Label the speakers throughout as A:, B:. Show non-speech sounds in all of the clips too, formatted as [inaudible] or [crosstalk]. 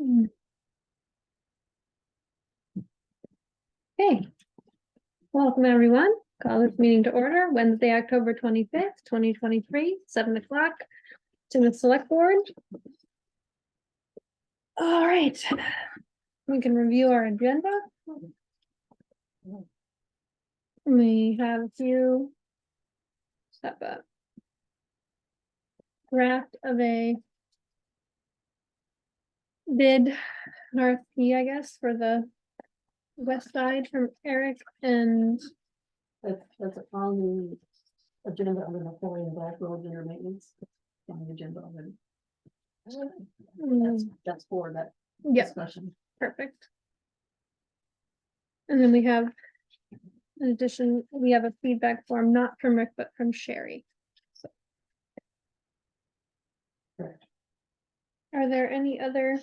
A: Hmm. Okay. Welcome, everyone. Call this meeting to order Wednesday, October twenty-fifth, twenty twenty-three, seven o'clock. To the select board. All right. We can review our agenda. We have a few. Step up. Draft of a bid, an RFP, E, I guess, for the west side from Eric and,
B: That's, that's on the agenda under Napoleon Black Road Winter Maintenance. On the agenda already. That's,
A: mm,
B: that's for that
A: yeah,
B: discussion.
A: perfect. And then we have, in addition, we have a feedback form, not from Rick, but from Sherry. So.
B: Correct.
A: Are there any other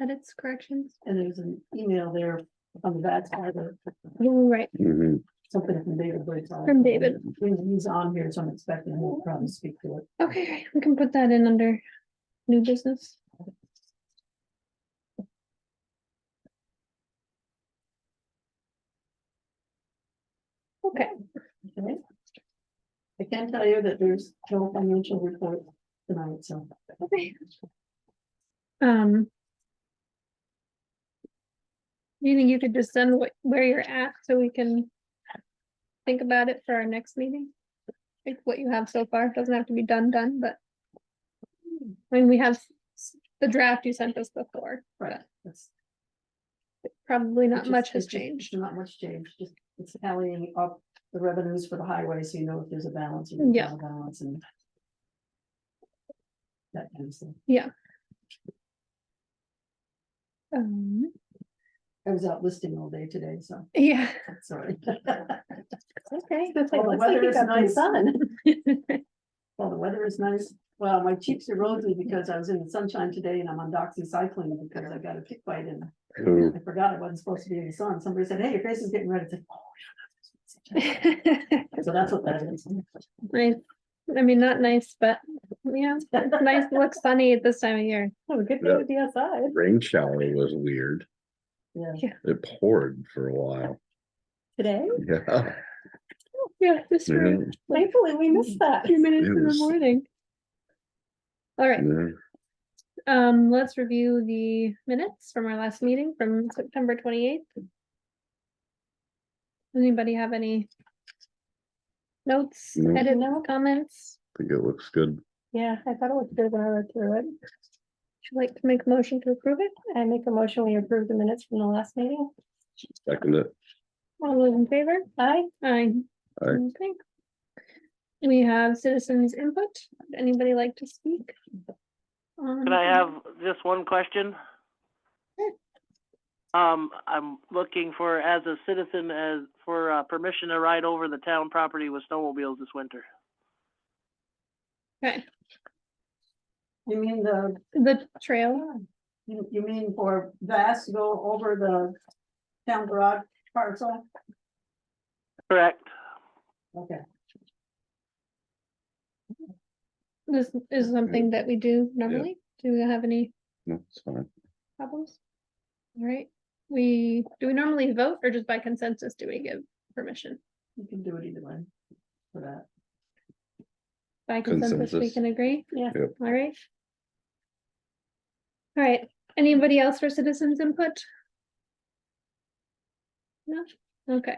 A: edits, corrections?
B: And there's an email there on the back side or
A: Ooh, Right,
C: Mhm.
B: something from David. Boyd.
A: From David.
B: He's- He's on here, so I'm expecting him to probably speak to it.
A: okay, great. we can put that in under new business. Okay.
B: Okay. I can tell you that there's no financial report tonight, so.
A: Okay. Um. do You think you could just send what, where you're at so we can think about it for our next meeting? Like what you have so far, doesn't have to be done, done, but. I mean, we have s- the draft you sent us before,
B: Right. that's-
A: probably
B: It's
A: not
B: just-
A: much has
B: it's just-
A: changed.
B: Not much changed, just it's tallying up the revenues for the highway, so you know if there's a balance. or
A: Yeah.
B: not a Balance and. That kind of thing.
A: Um,
B: I was out listing all day today, so, [laughs]
A: yeah,
B: sorry. [laughs]
A: okay.
B: Well, the weather is nice.
A: sun.
B: Well, the weather is nice. Well, my cheeks are rosy because I was in the sunshine today and I'm on doxycycline because I got a tick bite and
C: Ooh,
B: I forgot I wasn't supposed to be in the sun. Somebody said, hey, your face is getting red. It's like, oh. yeah, that's- [laughs] So that's what that is.
A: [laughs] Nice, I mean, not nice, but yeah, it's
B: [laughs]
A: nice, it looks sunny at this time of year.
B: Oh, good
C: Yeah.
B: to be outside.
C: rain shower was weird.
B: Yeah.
C: It poured for a while. [laughs]
B: Today?
C: Yeah.
A: Yeah, just for
C: Mhm,
B: Thankfully, we
A: missed a
B: that.
A: few minutes in the
C: Yes.
A: morning. All right,
C: mhm.
A: um, let's review the minutes from our last meeting from September twenty-eighth. Anybody have any notes,
C: No.
A: edit comments?
C: Think it looks good.
D: Yeah, I thought it looked good when I read through it.
A: Would you like to make a motion to approve it?
D: I make a motion, we approve the minutes from the last meeting.
C: Second it.
A: All those in favor?
D: Aye.
A: Aye.
C: Aye.
A: Okay. We have citizens input. Would Anybody like to speak? Um,
E: Could I have just one question?
A: Sure.
E: Um, I'm looking for, as a citizen, as, for, uh, permission to ride over the town property with snowmobiles this winter.
A: Okay,
B: You mean the,
A: the trail,
B: you, you mean for Vass to go over the town garage parcel?
E: Correct.
B: Okay,
A: this is something that we do normally. Do we have any
C: No, it's fine.
A: problems? All right, we, do we normally vote or just by consensus do we give permission?
B: you can do it either way for that.
A: By consensus, we
C: Consensus.
A: can agree?
D: Yeah.
C: Yep.
A: All right. All right, anybody else for citizens input? No, okay,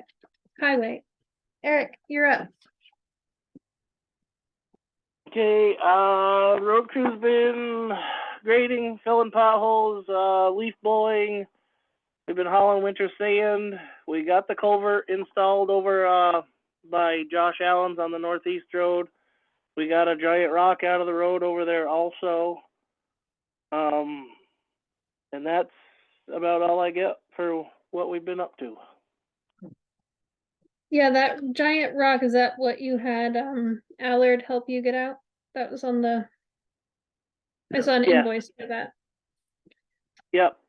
A: highway. Eric, you're up.
E: Okay, uh, road crew's been grading, filling potholes, uh, leaf blowing. We've been hauling winter sand. We got the culvert installed over, uh, by Josh Allen's on the northeast road. We got a giant rock out of the road over there also. Um, and that's about all I get for what we've been up to.
A: Yeah, that giant rock, is that what you had, um, Allard help you get out? That was on the. I saw an
E: Yeah.
A: invoice for that.
E: Yep,